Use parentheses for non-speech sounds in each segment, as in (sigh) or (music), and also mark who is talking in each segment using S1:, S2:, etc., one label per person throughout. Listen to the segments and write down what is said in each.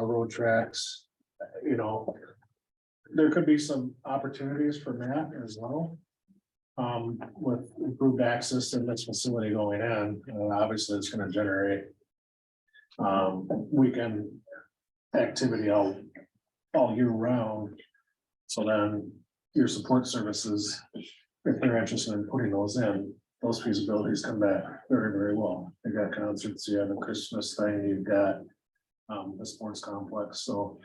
S1: railroad tracks, uh, you know. There could be some opportunities for that as well. Um, with improved access to this facility going in, and obviously it's gonna generate. Um, weekend activity all, all year round. So then your support services, if they're interested in putting those in, those feasibilities come back very, very well. You've got concerts, you have a Christmas thing, you've got um, the sports complex, so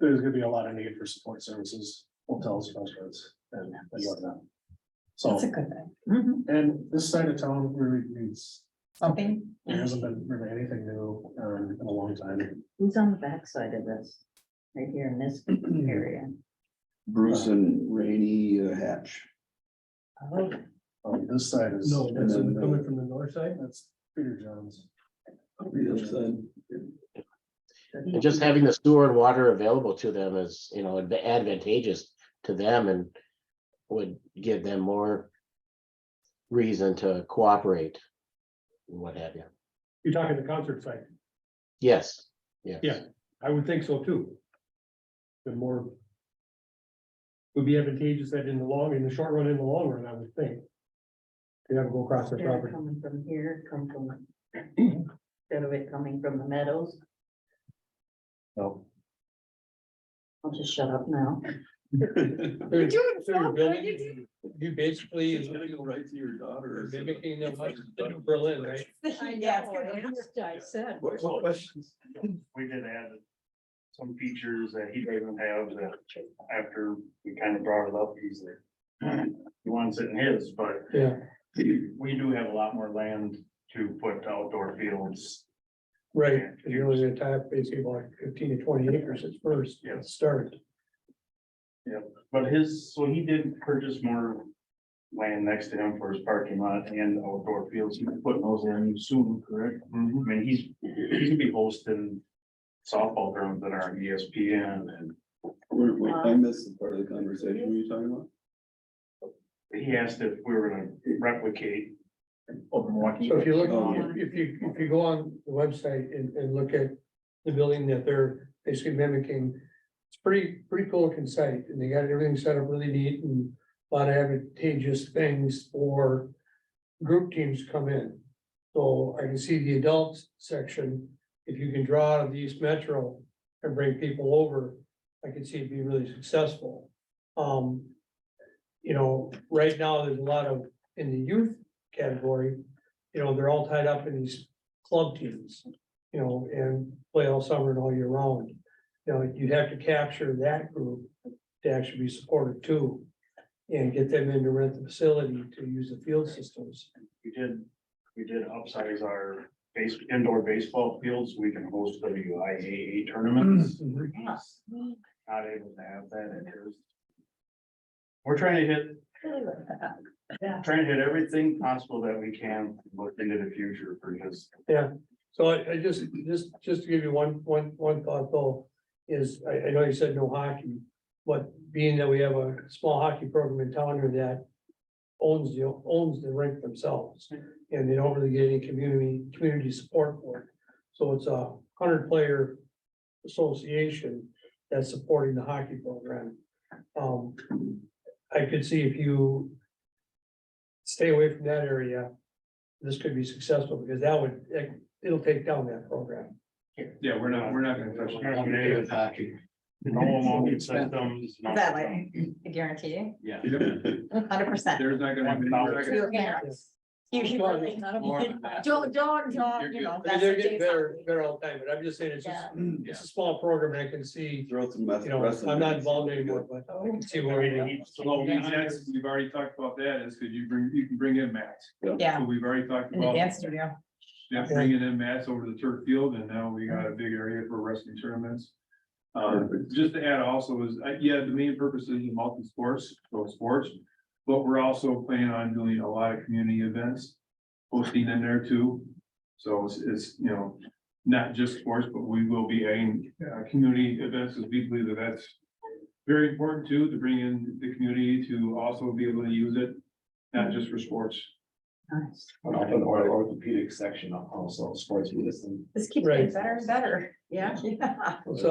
S1: there's gonna be a lot of need for support services, hotels, restaurants, and and whatnot. So,
S2: That's a good
S3: Mm-hmm.
S2: thing.
S1: and this side of town really needs,
S2: Something,
S1: there hasn't been really anything new, um, in a long time.
S3: Who's on the backside of this? Right here in this area.
S4: Bruce and Rainy uh, Hatch.
S3: Oh,
S1: Um, this side is.
S5: No, that's coming from the north side.
S1: That's Peter Jones.
S6: And just having the sewer and water available to them is, you know, adv- advantageous to them and would give them more reason to cooperate, and what have you.
S5: You're talking the concert site.
S6: Yes, yes.
S5: Yeah. I would think so too. The more. Would be advantageous that in the long, in the short run, in the long run, I would think. You have to go across their
S3: They're
S5: property.
S3: coming from here, come from. Instead of it coming from the meadows,
S1: No,
S3: I'll just shut up now.
S4: (laughs)
S7: You're doing
S8: So you're
S7: so good.
S8: building,
S7: You
S8: you basically is
S4: go right to your daughter.
S7: mimicking them like Berlin, right?
S8: I
S2: Yeah,
S8: know,
S2: it's
S8: I
S2: gonna-
S8: just-
S3: I said.
S4: Questions?
S9: we did add some features that he doesn't have that after we kind of brought it up, he's like. (clears throat) He wants it in his, but
S5: Yeah.
S9: we do have a lot more land to put outdoor fields.
S5: Right, and you're only gonna tie up basically like fifteen to twenty acres at first,
S9: Yeah.
S5: at start.
S9: But his, so he did purchase more land next to him for his parking lot and outdoor fields. He's putting those in soon, correct? I mean, he's, he's gonna be hosting softball grounds that are E on ESPN and
S4: Wait, wait, I missed the part of the conversation you were talking about.
S9: he asked if we were gonna replicate. Open
S5: So if you look,
S4: Oh,
S3: yeah.
S5: if you, if you go on the website and, and look at the building that they're basically mimicking. It's pretty, pretty cool looking site and they got everything set up really neat and a lot of advantageous things for group teams to come in. So I can see the adults section, if you can draw out of the East Metro and bring people over, I could see it be really successful. Um, you know, right now, there's a lot of, in the youth category, you know, they're all tied up in these club teams, you know, and play all summer and all year round. You know, you have to capture that group to actually be supported too, and get them in to rent the facility to use the field systems.
S9: We did, we did upsize our base, indoor baseball fields, we can host WIAA tournaments. Not able to have that in here. We're trying to hit, trying to hit everything possible that we can, look into the future for his.
S5: So I, I just, just, just to give you one, one, one thought though, is, I, I know you said no hockey. But being that we have a small hockey program in town here that owns the, owns the rink themselves. And they don't really get any community, community support for it. So it's a hundred player association that's supporting the hockey program. Um, I could see if you stay away from that area, this could be successful because that would, that it'll take down that program.
S9: Yeah, we're not, we're not gonna touch. No ammonia systems. no-
S2: That way. I guarantee you,
S4: Yeah. (laughs)
S2: hundred percent.
S4: There's not
S9: gonna be- One thousand.
S2: Two hands. You should really- (laughs) Don't, don't, don't, you know.
S5: I mean,
S2: that's
S5: They're
S2: a
S5: getting
S2: Jason.
S5: better, better all the time, but I'm just saying it's just, it's a small program and I can see,
S4: Throw some.
S5: you know, I'm not involved anymore, but I
S2: Oh.
S5: can see where.
S9: Ready to
S5: we
S9: heat some up.
S7: We've already talked about that, is because you bring, you can bring in mats.
S2: Yeah,
S7: So we've already talked
S2: in the
S7: about,
S2: dance studio.
S7: yeah, bringing in mats over to the turf field, and now we got a big area for wrestling tournaments. Um, just to add also is, uh, yeah, the main purpose is multi-sports, so sports, but we're also planning on doing a lot of community events. Hosting in there too, so it's, it's, you know, not just sports, but we will be adding, uh, community events, as we believe that that's very important too, to bring in the community to also be able to use it, not just for sports.
S3: Nice.
S9: Open our orthopedic section also sports medicine.
S2: This keeps
S5: Right.
S2: getting better and better, yeah.
S3: Yeah.
S5: So